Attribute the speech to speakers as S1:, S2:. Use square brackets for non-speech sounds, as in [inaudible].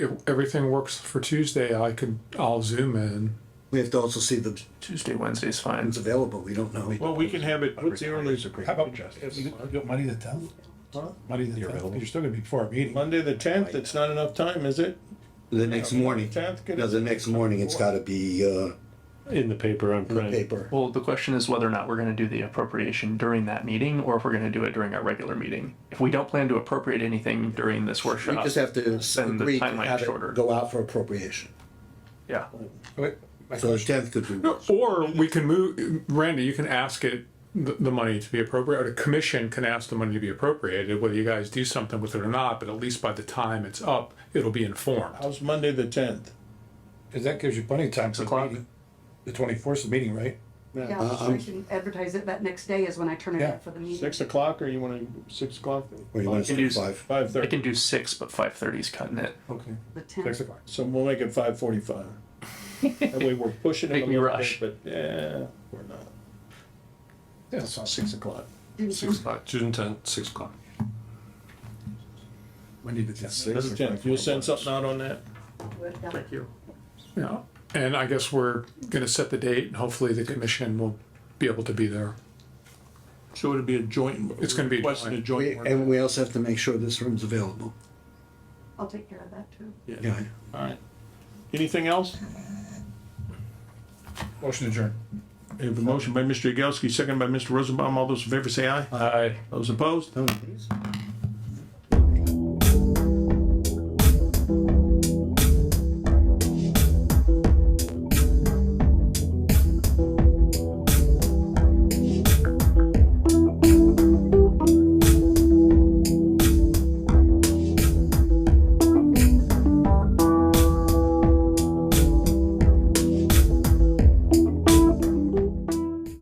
S1: if everything works for Tuesday, I could, I'll zoom in.
S2: We have to also see the
S3: Tuesday, Wednesday's fine.
S2: who's available. We don't know.
S4: Well, we can have it, what's the earliest,
S5: How about, you got Monday the tenth? Monday the tenth, you're still gonna be before a meeting.
S4: Monday the tenth, it's not enough time, is it?
S2: The next morning,
S4: Tenth, good.
S2: no, the next morning, it's gotta be, uh,
S6: in the paper on
S2: in the
S6: print.
S2: paper.
S3: Well, the question is whether or not we're gonna do the appropriation during that meeting, or if we're gonna do it during our regular meeting. If we don't plan to appropriate anything during this
S2: We
S3: workshop.
S2: just have to
S3: Send the
S2: agree to
S3: timeline
S2: have
S3: shorter.
S2: it go out for appropriation.
S3: Yeah,
S2: So the tenth could be,
S1: Or we can move, Randy, you can ask it, the, the money to be appropriate, or the commission can ask the money to be appropriated, whether you guys do something with it or not, but at least by the time it's up, it'll be informed.
S4: How's Monday the tenth?
S5: Cause that gives you plenty of time for the
S3: o'clock.
S5: meeting. The twenty-fourth is the meeting, right?
S7: Yeah, I can advertise it that next day is when I turn it
S5: Yeah.
S7: in for the meeting.
S4: Six o'clock, or you wanna, six o'clock,
S2: or you want
S3: can do-
S2: to say five?
S4: five
S3: I
S4: thirty,
S3: can do six, but five thirty's cutting it.
S5: Okay.
S7: The
S5: Six
S7: tenth,
S5: o'clock.
S4: so we'll make it
S3: [laughs]
S4: five forty-five. That way we're pushing it a
S3: Make me
S4: little
S3: rush.
S4: bit, but, yeah, we're not. Yeah, it's not six o'clock.
S6: Six o'clock, June tenth, six o'clock.
S5: Monday the tenth.
S4: Monday the tenth, you'll send something out on that?
S3: Thank you.
S1: Yeah, and I guess we're gonna set the date and hopefully the commission will be able to be there.
S4: So it'd be a joint.
S1: It's gonna be a
S4: requesting
S1: joint.
S2: We- And we also have to make sure this room's available.
S7: I'll take care of that too.
S2: Yeah.
S4: Alright. Anything else?
S5: Motion adjourned.
S4: We have a motion by Mr. Yagowski, second by Mr. Rosenbaum. All those in favor say aye.
S1: I
S4: Those opposed?
S2: Oh, geez.